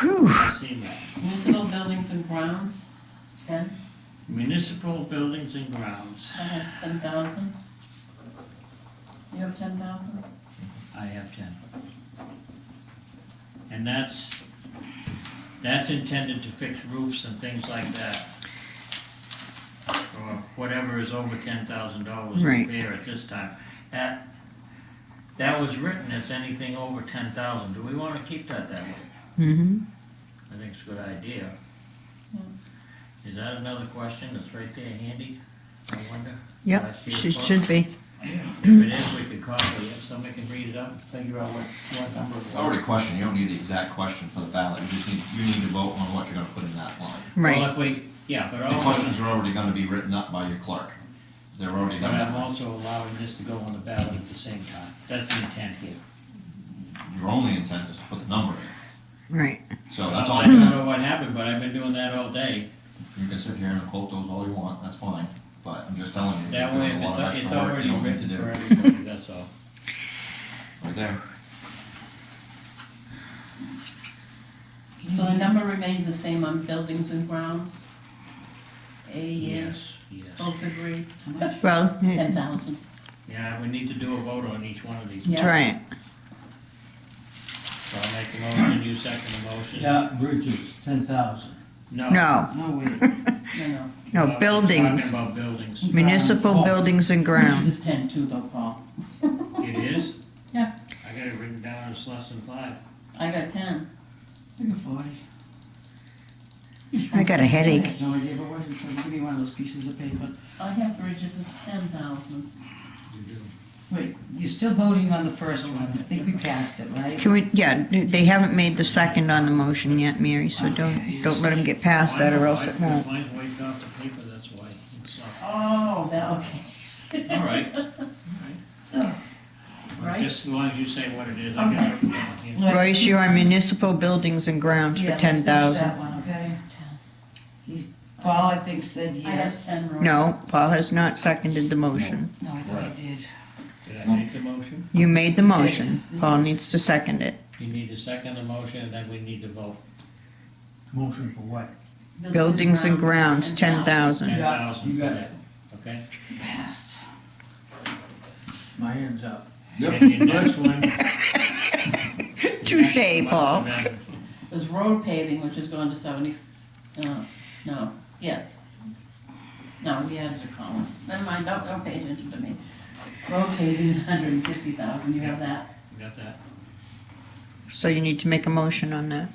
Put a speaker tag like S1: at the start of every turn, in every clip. S1: Whew.
S2: I've seen that.
S3: Municipal buildings and grounds, ten,
S2: Municipal buildings and grounds,
S3: I have ten thousand. You have ten thousand?
S2: I have ten. And that's, that's intended to fix roofs and things like that. Or whatever is over ten thousand dollars
S1: Right.
S2: repair at this time. That, that was written as anything over ten thousand, do we wanna keep that that way?
S1: Mm-hmm.
S2: I think it's a good idea. Is that another question that's right there handy? I wonder.
S1: Yep,
S2: Last year's
S1: Uh, she
S2: book?
S1: should be.
S2: If it is, we could copy it, somebody can read it up, and figure out what, what number. it
S4: It's
S2: was.
S4: already a question, you don't need the exact question for the ballot, you just need, you need to vote on what you're gonna put in that line.
S2: Well,
S1: Right.
S2: if we, yeah, but
S4: The questions
S2: also,
S4: are already gonna be written up by your clerk. They're already
S2: but
S4: done.
S2: I'm also allowing this to go on the ballot at the same time, that's the intent here.
S4: Your only intent is to put the number in,
S1: Right.
S4: so that's
S2: Well,
S4: all
S2: I
S4: you
S2: don't
S4: can,
S2: know what happened, but I've been doing that all day,
S4: you can sit here and quote those all you want, that's fine, but I'm just telling you.
S2: that
S4: you're
S2: way,
S4: doing
S2: if
S4: a lot
S2: it's,
S4: of
S2: it's
S4: extra work
S2: already
S4: you don't need
S2: written
S4: to do.
S2: for everybody, that's all.
S4: Right there.
S3: So the number remains the same on buildings and grounds? A, yes,
S2: Yes,
S3: both agree, how much?
S1: Well,
S3: Ten
S1: yeah,
S3: thousand,
S2: yeah, we need to do a vote on each one of these,
S3: Yeah.
S1: try it.
S2: so I'll make the motion, you second the motion.
S5: Yeah, bridges, ten thousand.
S2: No.
S1: No.
S5: No, Oh, wait.
S3: no, no,
S2: Well,
S1: No,
S2: we're Talking
S1: buildings,
S2: about buildings.
S1: municipal
S5: Grounds.
S1: buildings and grounds.
S5: This is ten too though, Paul.
S2: It is?
S3: Yeah.
S2: I got it written down as less than five.
S3: I got ten.
S5: Maybe forty.
S1: I got a
S5: I
S1: headache.
S5: have no idea, but what is it, so give me one of those pieces of paper.
S3: I have bridges as ten thousand.
S5: Wait, you're still voting on the first one, I think we passed it, right?
S1: Can we, yeah, they haven't made the second on the motion yet, Mary, so don't, don't let them get past that or else it won't.
S2: Mine's wiped off the paper, that's why. It's not-
S3: Oh, that, okay.
S2: All right.
S3: Right?
S2: Just as long as you say what it is,
S1: Um,
S2: I got it written down here.
S5: Right.
S1: Royce, you're on municipal buildings and grounds for
S5: Yeah, let's
S1: ten
S5: finish
S1: thousand.
S5: That one, okay? He- Paul, I think, said
S3: I have
S5: yes.
S3: ten, Roy.
S1: No, Paul has not seconded the motion.
S5: No, I thought I did.
S2: Did I make the motion?
S1: You made the motion. Paul needs to second it.
S2: You need to second the motion, and then we need to vote
S5: Motion for what?
S1: Buildings and grounds, ten
S2: ten
S1: thousand.
S2: thousand
S5: you
S2: for
S5: got
S2: that, okay?
S5: Passed.
S6: My hand's up.
S2: And your next one.
S1: Touche, Paul.
S3: There's road paving, which has gone to seventy, no, no, yes. No, we added a column, never mind, don't, don't pay attention to me. Road paving is hundred and fifty thousand, you have that?
S2: Got that?
S1: So you need to make a motion on that.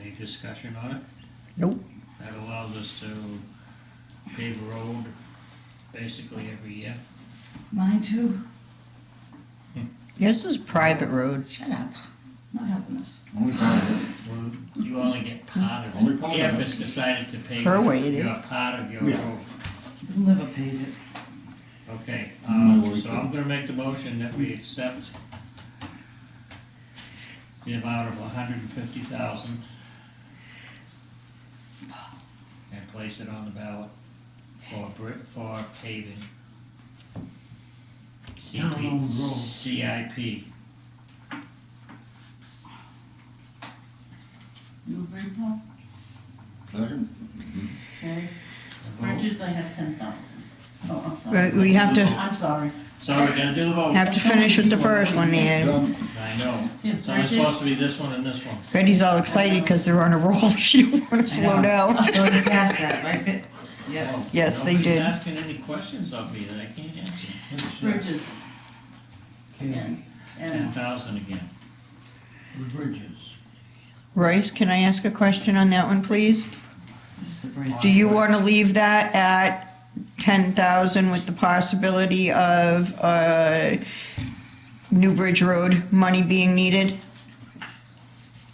S2: Any discussion on it?
S1: Nope.
S2: That allows us to pave a road basically every year.
S5: Mine too.
S1: This is private road.
S5: Shut up. Not helping us.
S4: Only time.
S2: Well, You only get part of
S4: Only
S2: it,
S4: part of
S2: if
S4: it.
S2: it's decided to pay.
S1: Per way it
S2: You're
S1: is.
S2: part of your
S4: Yeah.
S2: road,
S5: They'll never pave it.
S2: okay, um,
S4: No worry.
S2: so I'm gonna make the motion that we accept the amount of hundred and fifty thousand and place it on the ballot for brick, for paving.
S5: Down
S2: CP,
S5: on road.
S2: CIP,
S3: You agree, Paul? Okay, bridges, I have ten thousand. Oh, I'm
S1: Right,
S3: sorry,
S1: we have to,
S3: I'm sorry,
S2: so we're gonna do the vote,
S1: have to finish with the first one, Leanne.
S2: I know,
S3: Yeah,
S2: so it's
S3: bridges.
S2: supposed to be this one and this one.
S1: Betty's all excited because they're on a roll. She don't want to slow down.
S5: So you passed that, right, Vic? Yeah.
S2: Oh,
S1: Yes, they
S2: Nobody's
S1: did.
S2: asking any questions of me that I can't answer.
S3: bridges,
S6: Okay,
S3: and,
S2: Ten
S3: and,
S2: thousand again.
S6: the bridges.
S1: Royce, can I ask a question on that one, please?
S5: This is the bridge.
S1: Do you want to leave that at ten thousand with the possibility of, uh, New Bridge Road money being needed?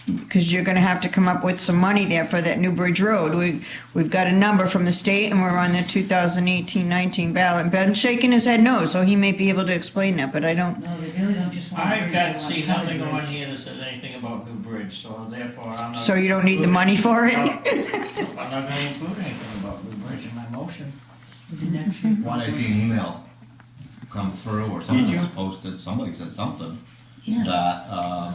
S1: Because you're gonna have to come up with some money there for that New Bridge Road. We, we've got a number from the state and we're on the 2018-19 ballot. Ben's shaking his head no, so he may be able to explain that, but I don't,
S5: No, they really don't just want. a
S2: I've
S5: bridge,
S2: got,
S5: they
S2: see,
S5: want a
S2: nothing
S5: bridge.
S2: on here that says anything about New Bridge, so therefore I'm not.
S1: so you don't need the money for it?
S2: I'm not gonna include anything about New Bridge in my motion.
S4: Why did I see an email come through or something was posted, somebody said something,
S5: Yeah.
S4: that, uh,